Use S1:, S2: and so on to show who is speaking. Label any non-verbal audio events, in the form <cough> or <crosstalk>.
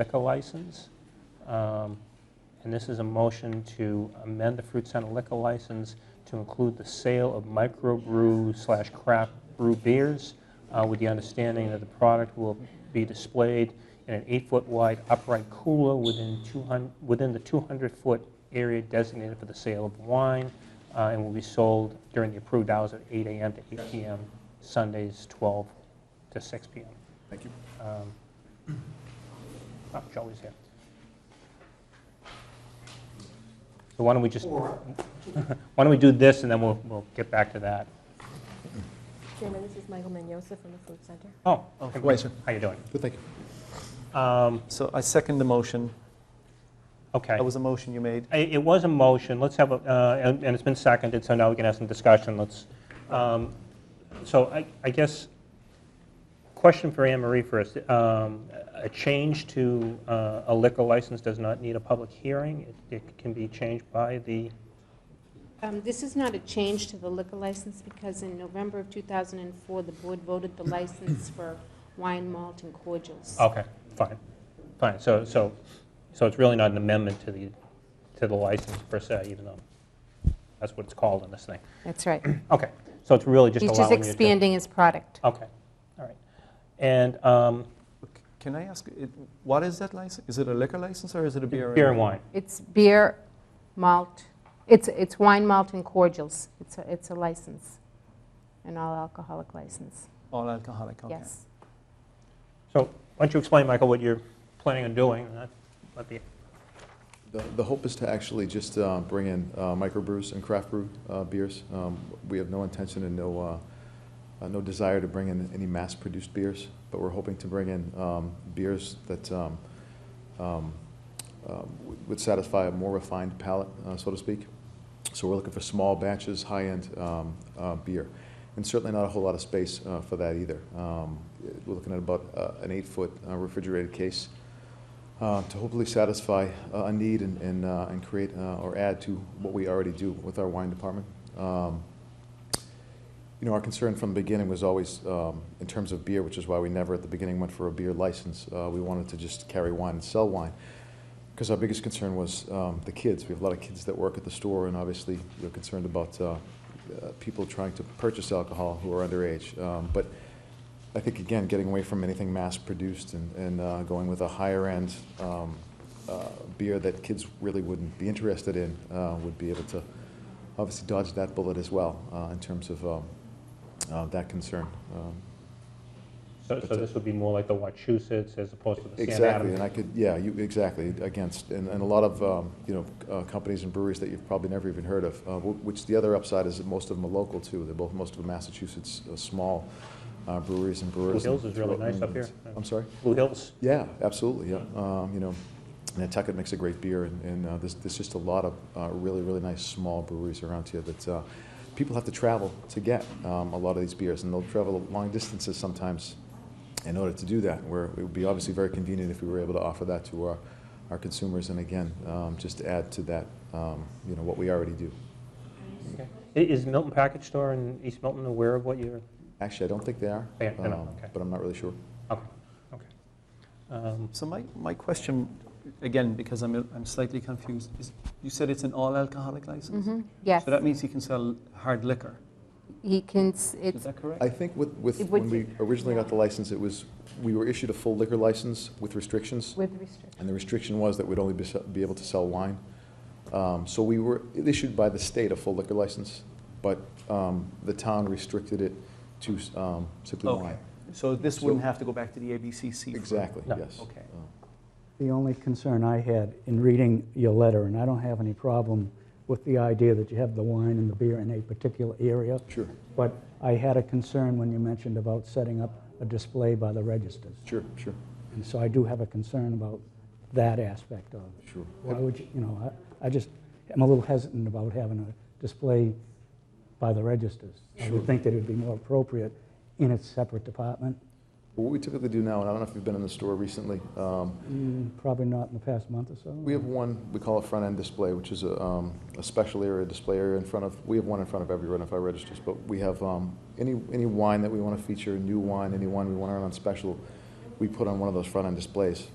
S1: liquor license. Um, And this is a motion to amend the Fruit Center liquor license to include the sale of microbrew slash craft brew beers uh, with the understanding that the product will be displayed in an eight-foot wide upright cooler within 200, within the 200-foot area designated for the sale of wine uh, and will be sold during the approved hours of 8 AM to 8 PM, Sundays 12 to 6 PM.
S2: Thank you.
S1: Um, Oh, Charlie's here. So why don't we just, <laughs> why don't we do this, and then we'll, we'll get back to that.
S3: Chairman, this is Michael Mendoza from the Food Center.
S1: Oh,
S2: Right, sir.
S1: how you doing?
S2: Good, thank you.
S1: Um,
S4: So I second the motion.
S1: Okay.
S4: That was a motion you made.
S1: I- It was a motion, let's have, a uh, and and it's been seconded, so now we can have some discussion, let's, um, so I- I guess, question for Anne Marie first, Um, a change to uh, a liquor license does not need a public hearing, It- it can be changed by the,
S5: Um, This is not a change to the liquor license because in November of 2004, the board voted the license for wine, malt, and cordials.
S1: okay, fine, fine, so, so, so it's really not an amendment to the, to the license per se, even though that's what it's called in this thing.
S5: That's right.
S1: Okay, so it's really just
S5: He's
S1: allowing
S5: just
S1: you to...
S5: expanding his product.
S1: Okay, all right. And um,
S4: Can I ask, it- what is that license? Is it a liquor license or is it a beer?
S1: beer and wine,
S5: It's beer, malt, it's, it's wine, malt, and cordials. It's, a- it's a license, an all-alcoholic license,
S4: All alcoholic, okay.
S5: yes.
S1: so why don't you explain, Michael, what you're planning on doing, and that might be,
S2: The the hope is to actually just uh, bring in uh, microbrews and craft brew uh, beers. Um, We have no intention and no, uh, uh, no desire to bring in any mass-produced beers, but we're hoping to bring in um, beers that um, um, um, would satisfy a more refined palate, uh, so to speak. So we're looking for small batches, high-end um, uh, beer, and certainly not a whole lot of space uh, for that either. Um, We're looking at about uh, an eight-foot uh, refrigerated case uh, to hopefully satisfy uh, a need and, and, uh, and create uh, or add to what we already do with our wine department. Um, you know, our concern from the beginning was always um, in terms of beer, which is why we never at the beginning went for a beer license. Uh, we wanted to just carry wine and sell wine because our biggest concern was um, the kids. We have a lot of kids that work at the store, and obviously we're concerned about uh, uh, people trying to purchase alcohol who are underage. Um, but I think, again, getting away from anything mass-produced and, and uh, going with a higher-end um, uh, beer that kids really wouldn't be interested in uh, would be able to obviously dodge that bullet as well uh, in terms of um, uh, that concern. Um,
S1: so so this would be more like the Wachusett's as opposed to the San
S2: Exactly, and
S1: Adams?
S2: I could, yeah, you, exactly, against, and, and a lot of, um, you know, uh, companies and breweries that you've probably never even heard of, uh, wh- which the other upside is that most of them are local too. They're both, most of them Massachusetts, uh, small uh, breweries and brewers.
S1: Hills
S2: and
S1: is really
S2: throughout New
S1: nice up
S2: England.
S1: here.
S2: I'm sorry?
S1: Blue Hills,
S2: Yeah, absolutely, yeah. Um, you know, Nantucket makes a great beer, and, and uh, there's, there's just a lot of uh, really, really nice small breweries around here that uh, people have to travel to get um, a lot of these beers, and they'll travel long distances sometimes in order to do that. Where it would be obviously very convenient if we were able to offer that to our, our consumers, and again, um, just to add to that, um, you know, what we already do.
S1: okay. I- Is Milton Package Store in East Milton aware of what you're,
S2: Actually, I don't think they are, um,
S1: They- they're not, okay.
S2: but I'm not really sure.
S1: okay, okay. Um,
S4: So my, my question, again, because I'm, I'm slightly confused, is you said it's an all alcoholic license?
S5: Mhm, Yes,
S4: So that means you can sell hard liquor,
S5: he can, s-
S4: is
S5: it's,
S4: that correct?
S2: I think with, with
S5: It would
S2: when we originally got the license, it was, we were issued a full liquor license with restrictions.
S5: with restriction.
S2: And the restriction was that we'd only be, be able to sell wine. Um, so we were issued by the state a full liquor license, but um, the town restricted it to um, simply
S4: Okay.
S2: wine.
S4: So this
S2: So-
S4: wouldn't have to go back to the ABCC? for-
S2: Exactly,
S1: No.
S2: yes.
S4: Okay.
S2: Um,
S6: The only concern I had in reading your letter, and I don't have any problem with the idea that you have the wine and the beer in a particular area,
S2: Sure,
S6: but I had a concern when you mentioned about setting up a display by the registers.
S2: sure, sure,
S6: And so I do have a concern about that aspect of it.
S2: sure.
S6: Why would you, you know, I, I just, am a little hesitant about having a display by the registers. I would think that it would be more appropriate in its separate department.
S2: What we typically do now, and I don't know if you've been in the store recently, um,
S6: Mm, Probably not in the past month or so.
S2: We have one, we call it front-end display, which is a, um, a special area, display area in front of, we have one in front of every Renify registers, but we have, um, any, any wine that we want to feature, new wine, any wine we want to run on special, we put on one of those front-end displays.